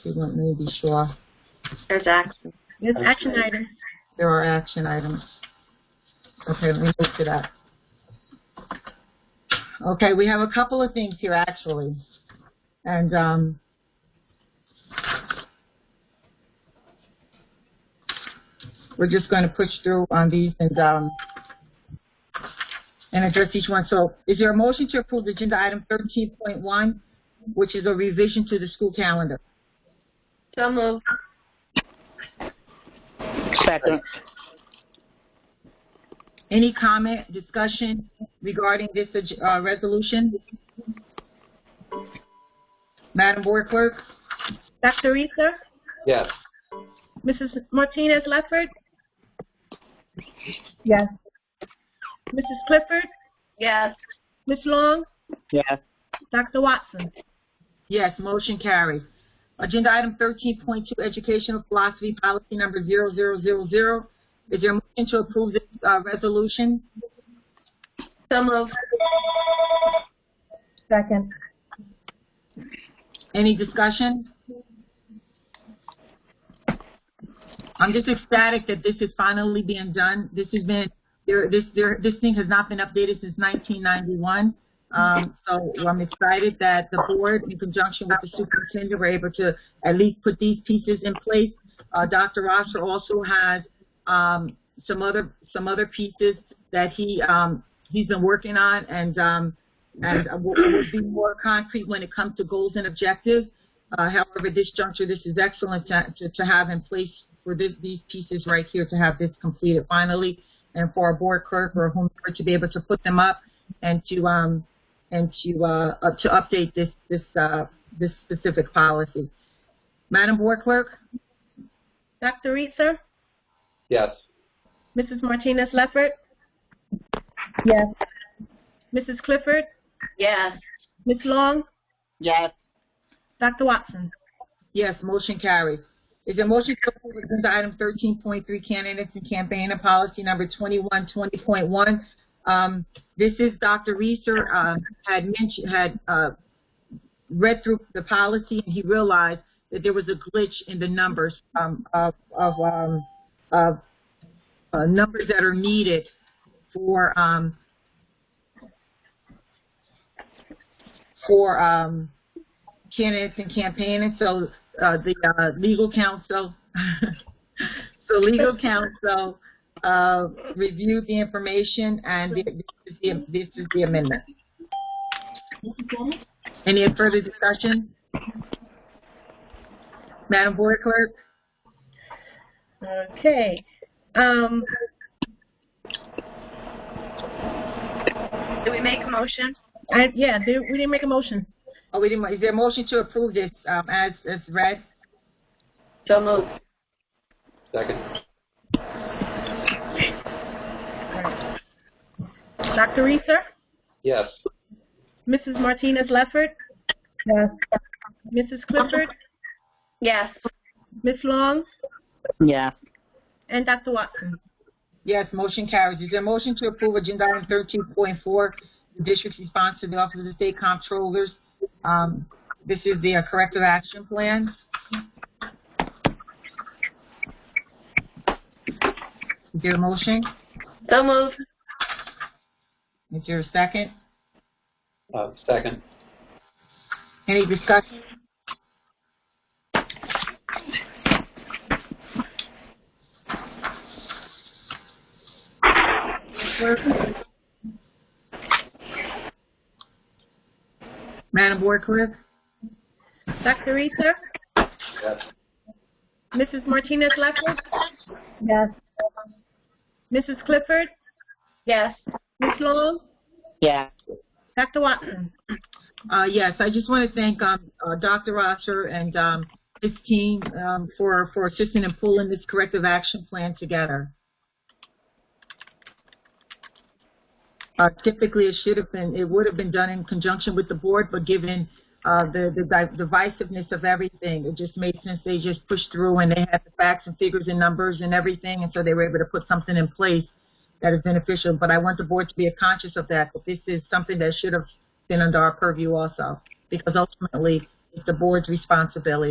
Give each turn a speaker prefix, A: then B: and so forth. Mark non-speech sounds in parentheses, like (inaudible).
A: Student may be sure
B: There's action.
C: Yes,
B: Action items.
A: there are action items. Okay, let me move to that. Okay, we have a couple of things here, actually. And, um, we're just going to push through on these and, um, and address each one. So is there a motion to approve agenda item thirteen point one, which is a revision to the school calendar?
B: So moved.
C: Second.
A: Any comment, discussion regarding this uh, resolution? Madam Board Clerk?
B: Dr. Reeser?
D: Yes.
B: Mrs. Martinez Lefford?
A: Yes.
B: Mrs. Clifford? Yes. Ms. Long?
C: Yes.
B: Dr. Watson?
A: Yes, motion carries. Agenda item thirteen point two, educational philosophy policy number zero zero zero zero. Is there a motion to approve this, uh, resolution?
B: So moved.
A: Second. Any discussion? I'm just ecstatic that this is finally being done. This has been, there, this, there, this thing has not been updated since nineteen ninety-one. Um, so I'm excited that the board, in conjunction with the superintendent, were able to at least put these pieces in place. Uh, Dr. Rosser also has, um, some other, some other pieces that he, um, he's been working on and, um, and uh, we'll, we'll be more concrete when it comes to goals and objectives. Uh, however, at this juncture, this is excellent to, to, to have in place for this, these pieces right here to have this completed finally, and for our board clerk or whomever to be able to put them up and to um and to uh up to update this this uh this specific policy. Madam Board Clerk,
B: Dr. Reeser?
D: Yes.
B: Mrs. Martinez Lefford?
A: Yes.
B: Mrs. Clifford? Yes. Ms. Long?
C: Yes.
B: Dr. Watson?
A: yes, motion carries. Is there a motion to approve agenda item thirteen point three candidates and campaign and policy number twenty-one twenty point one? Um, this is Dr. Reeser, um, had mentioned, had, uh, read through the policy and he realized that there was a glitch in the numbers, um, of, of, um, of, uh, numbers that are needed for, um, for, um, candidates and campaigning, so, uh, the, uh, legal counsel, (laughs) so legal counsel, uh, reviewed the information and thi- this is the, this is the amendment. Any further discussion? Madam Board Clerk?
B: Okay. Um. Did we make a motion? I, yeah, did- we didn't make a motion.
A: Oh, we didn't, is there a motion to approve this, um, as, as read?
B: So moved.
D: Second.
B: Dr. Reeser?
D: Yes.
B: Mrs. Martinez Lefford? Yes. Mrs. Clifford? Yes. Ms. Long
C: Yes.
B: and Dr. Watson?
A: Yes, motion carries. Is there a motion to approve agenda item thirteen point four, the district's response to the Office of the State Comptrollers? Um, this is their corrective action plan. Is there a motion?
B: So moved.
A: Is there a second?
D: Uh, second.
A: Any discussion? Madam Board Clerk?
B: Dr. Reeser?
D: Yes.
B: Mrs. Martinez Lefford?
A: Yes.
B: Mrs. Clifford? Yes. Ms. Long?
C: Yes.
B: Dr. Watson?
A: Uh, yes, I just want to thank, um, uh, Dr. Rosser and, um, his team, um, for, for assisting in pulling this corrective action plan together. Uh, typically, it should have been, it would have been done in conjunction with the board, but given, uh, the, the di- divisiveness of everything, it just made sense they just pushed through and they had the facts and figures and numbers and everything, and so they were able to put something in place that is beneficial, but I want the board to be conscious of that, that this is something that should have been under our purview also, because ultimately, it's the board's responsibility